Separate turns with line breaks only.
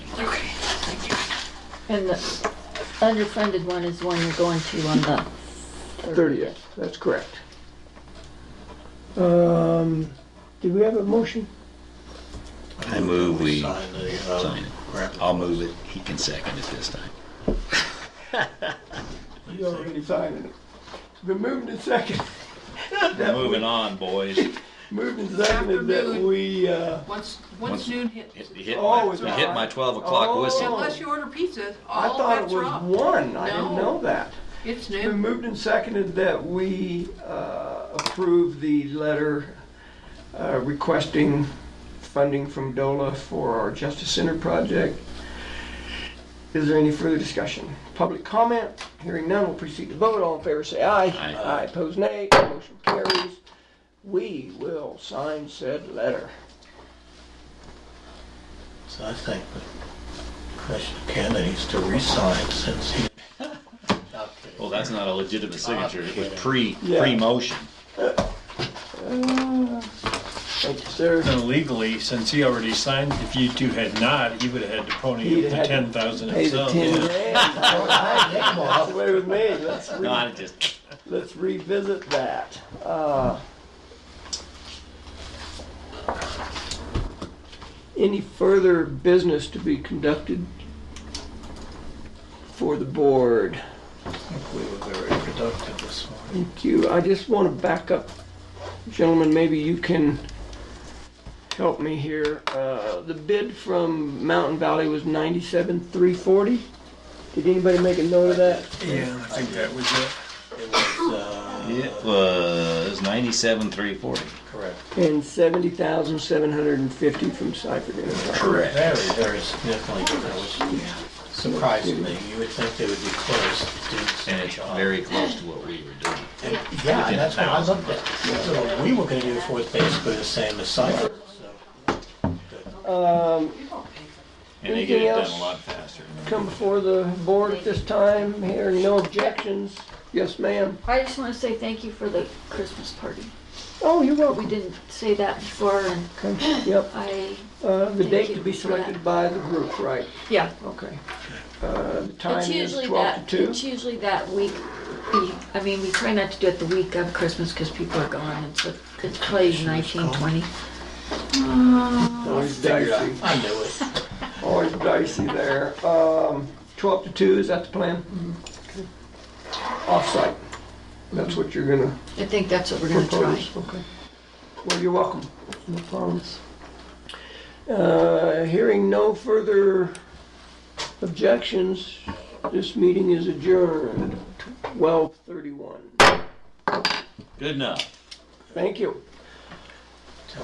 And the underfunded one is one you're going to on the
30th, that's correct. Um, Did we have a motion?
I move we
Sign the, uh,
sign it.
grant.
I'll move it. He can second it this time.
You already signed it. The moved and second,
Moving on, boys.
moved and seconded that
Afternoon.
we, uh,
Once,
Once-
once noon hits,
It- it hit
Oh,
my-
it's
it hit my
not.
12 o'clock
Oh.
whistle.
unless you order pizza,
I
all
thought it
bets are
was
off.
one, I didn't
No.
know that.
It's
It's been
noon.
moved and seconded that we uh, approve the letter uh, requesting funding from DOLA for our Justice Center project. Is there any further discussion? Public comment? Hearing none, we'll proceed to vote. All in favor, say aye.
Aye.
Aye, pose nay. Motion carries. We will sign said letter.
So I think that Commissioner Cannon needs to resign since he.
Well, that's not a legitimate signature. It was pre,
Uh, Yeah.
pre-motion.
Thank you, sir.
And legally, since he already signed, if you two had not, he would have had to pony
He'd had
up the
to
ten thousand
Pay the
himself.
ten
Yeah.
grand. That's the way with me. Let's re-
No, I just,
Let's revisit that. Uh, Any further business to be conducted for the board?
I think we were very productive this morning.
Thank you. I just want to back up. Gentlemen, maybe you can help me here. Uh, The bid from Mountain Valley was 97,340. Did anybody make a note of that?
Yeah, I think that was it.
It was, uh,
it was 97,340.
correct.
And 70,750 from Cypher Enterprise.
Correct.
Very, very significantly different, which surprised me. You would think they would be close to doing such
And
a
it's
job.
very close to what we were doing.
And- Yeah, and that's what I looked at. So we were gonna do for it basically the same as Cypher, so.
And they
Anything
get it done
else?
a lot faster.
come before the board at this time, hearing no objections. Yes, ma'am.
I just want to say thank you for the Christmas party.
Oh, you're
We
welcome.
didn't say that before, and
Okay, Yep,
I,
uh, the
Thank
date
you
to be
for that.
selected by the group, right?
yeah.
Okay. Uh, The
It's
time is
usually
12
that,
to
it's
2.
usually that week, be- I mean, we try not to do it the week of Christmas because people are gone, and so it plays nineteen twenty.
Always dicey,
I knew it.
always dicey there. Um, 12 to 2, is that the plan?
Mm-hmm.
Offsite, that's what you're gonna
I think that's what we're gonna try.
propose? Okay. Well, you're welcome. No problems. Uh, Hearing no further objections, this meeting is adjourned, 12:31.
Good enough.
Thank you.